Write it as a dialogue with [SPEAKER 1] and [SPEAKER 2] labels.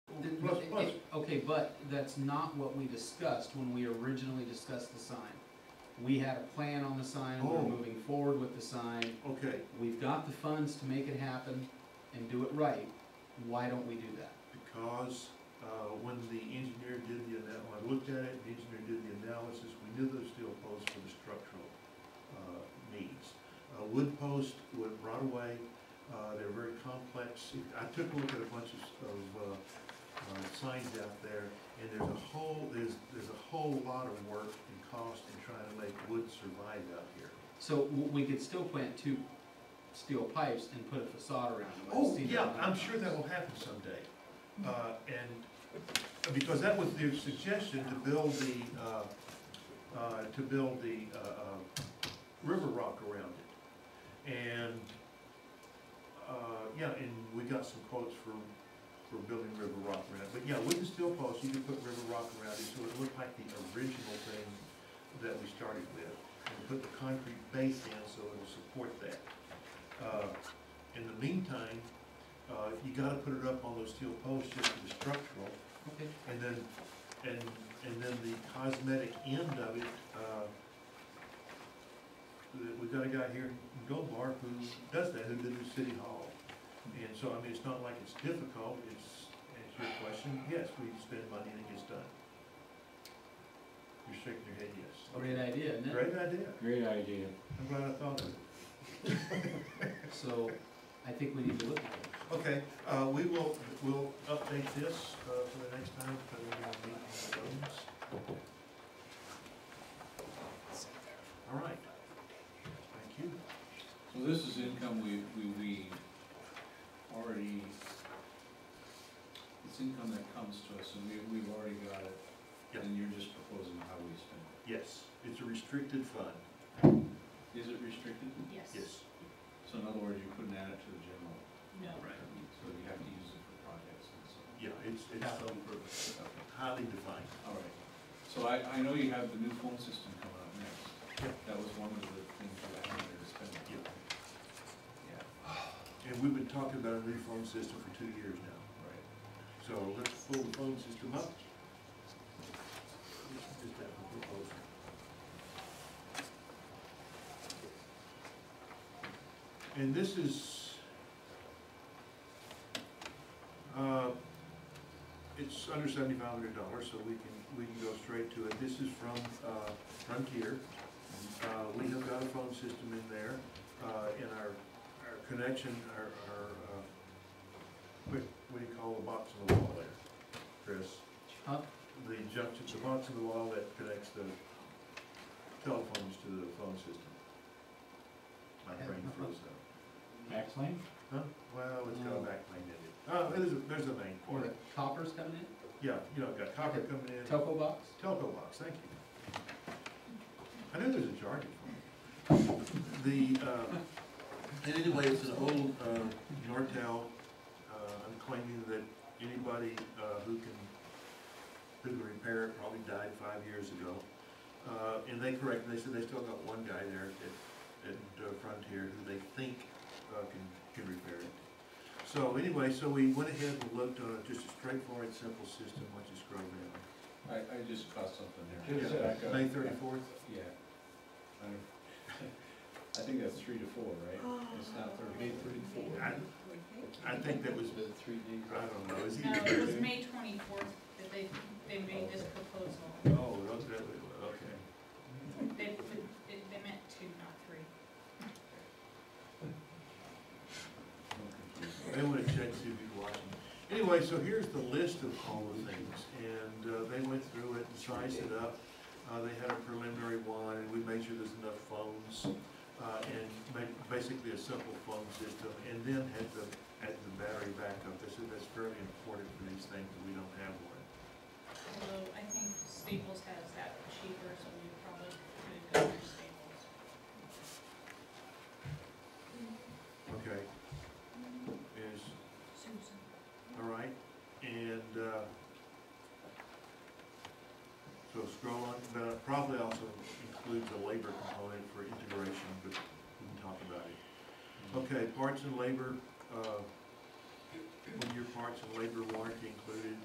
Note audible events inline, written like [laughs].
[SPEAKER 1] plus, plus.
[SPEAKER 2] Okay, but that's not what we discussed when we originally discussed the sign. We had a plan on the sign, we're
[SPEAKER 1] Oh.
[SPEAKER 2] moving forward with the sign,
[SPEAKER 1] Okay,
[SPEAKER 2] we've got the funds to make it happen and do it right, why don't we do that?
[SPEAKER 1] because, uh, when the engineer did the anal, when I looked at it, the engineer did the analysis, we knew there was steel posts for the structural, uh, needs. Uh, wood posts would rot away, uh, they're very complex. I took a look at a bunch of, of, uh, uh, signs out there, and there's a whole, there's, there's a whole lot of work and cost in trying to make wood survive out here.
[SPEAKER 2] So w- we could still plant two steel pipes and put a facade around them. I've
[SPEAKER 1] Oh,
[SPEAKER 2] seen
[SPEAKER 1] yeah,
[SPEAKER 2] that on
[SPEAKER 1] I'm
[SPEAKER 2] the
[SPEAKER 1] sure that
[SPEAKER 2] signs.
[SPEAKER 1] will happen someday. Uh, and, because that was their suggestion to build the, uh, uh, to build the, uh, uh, river rock around it. And, uh, yeah, and we got some quotes for, for building river rock around it. But yeah, with the steel posts, you can put river rock around it, so it looked like the original thing that we started with. And put the concrete base in, so it'll support that. Uh, in the meantime, uh, you gotta put it up on those steel posts just for the structural,
[SPEAKER 2] Okay,
[SPEAKER 1] and then, and, and then the cosmetic end of it, uh, we- we got a guy here in Gold Bar who does that, who did the city hall. And so, I mean, it's not like it's difficult, it's, it's your question, yes, we spend money and it gets done. You're shaking your head, yes.
[SPEAKER 2] great idea, isn't it?
[SPEAKER 1] Great idea,
[SPEAKER 3] Great idea.
[SPEAKER 1] I'm glad I thought of it.
[SPEAKER 2] So I think we need to look at it.
[SPEAKER 1] Okay, uh, we will, we'll update this, uh, for the next time, for the uh, meeting of the bones. All right. Thank you.
[SPEAKER 4] So this is income we, we, we already, it's income that comes to us and we, we've already got
[SPEAKER 1] Yeah.
[SPEAKER 4] it. And you're just proposing how we spend it.
[SPEAKER 1] Yes, it's a restricted fund.
[SPEAKER 4] Is it restricted?
[SPEAKER 5] Yes.
[SPEAKER 4] So in other words, you couldn't add it to the general.
[SPEAKER 5] No.
[SPEAKER 1] Right.
[SPEAKER 4] So you have to use it for projects and so.
[SPEAKER 1] Yeah, it's, it's
[SPEAKER 2] Capital improvement.
[SPEAKER 4] Okay,
[SPEAKER 1] highly defined.
[SPEAKER 4] All right. So I, I know you have the new phone system coming up next.
[SPEAKER 1] Yeah.
[SPEAKER 4] That was one of the things that I wanted to spend. on.
[SPEAKER 1] Yeah.
[SPEAKER 4] Yeah,
[SPEAKER 1] And we've been talking about a new phone system for two years now,
[SPEAKER 4] right.
[SPEAKER 1] so let's pull the phone system up. Just have a proposal. And this is, uh, it's under seventy-five hundred dollars, so we can, we can go straight to it. This is from, uh, Frontier. Uh, we have got a phone system in there, uh, in our, our connection, our, our, uh, what, what do you call the box on the wall there, Chris?
[SPEAKER 2] Huh?
[SPEAKER 1] The junction, the box on the wall that connects the telephones to the phone system. My brain froze up.
[SPEAKER 3] Backplane?
[SPEAKER 1] Huh? Well, it's got a
[SPEAKER 2] No.
[SPEAKER 1] back main in it. Uh, there's a, there's a main
[SPEAKER 2] Or the
[SPEAKER 1] port.
[SPEAKER 2] coppers coming in,
[SPEAKER 1] Yeah, you know, got copper coming in.
[SPEAKER 2] telco box?
[SPEAKER 1] Telco box, thank you. I knew there's a jargon for it. The, uh, and anyway, it's an old, uh, Nortel, uh, I'm claiming that anybody, uh, who can, who can repair it probably died five years ago. Uh, and they correct, they said they still got one guy there at, at uh, Frontier who they think, uh, can, can repair it. So anyway, so we went ahead and looked on a- just a straightforward, simple system, once you scroll down.
[SPEAKER 4] I, I just caught something there.
[SPEAKER 3] Just, uh,
[SPEAKER 4] Back up.
[SPEAKER 1] May thirty-fourth?
[SPEAKER 4] Yeah. [laughs] I- I think that's three to four, right? It's not thirty.
[SPEAKER 1] I, I think that was,
[SPEAKER 3] three days.
[SPEAKER 1] I don't know, is he?
[SPEAKER 5] No, Uh, it was May twenty-fourth that they, they made this proposal.
[SPEAKER 1] Oh, that's, that was- okay.
[SPEAKER 5] They, they they meant two, not three.
[SPEAKER 1] They wanna check, see if you're watching. Anyway, so here's the list of all the things, and, uh, they went through it and sized it up. Uh, they had a preliminary one, and we made sure there's enough phones, uh, and made basically a simple phone system, and then had the, had the battery backup. They said that's fairly important for these things, and we don't have one.
[SPEAKER 5] Although I think Staples has that cheaper, so we probably could go to Staples.
[SPEAKER 1] Okay. Is,
[SPEAKER 5] Susan.
[SPEAKER 1] All right, and, uh, so scroll on, but it probably also includes a labor component for integration, but we can talk about it. Okay, parts and labor, uh, one-year parts and labor warranty included,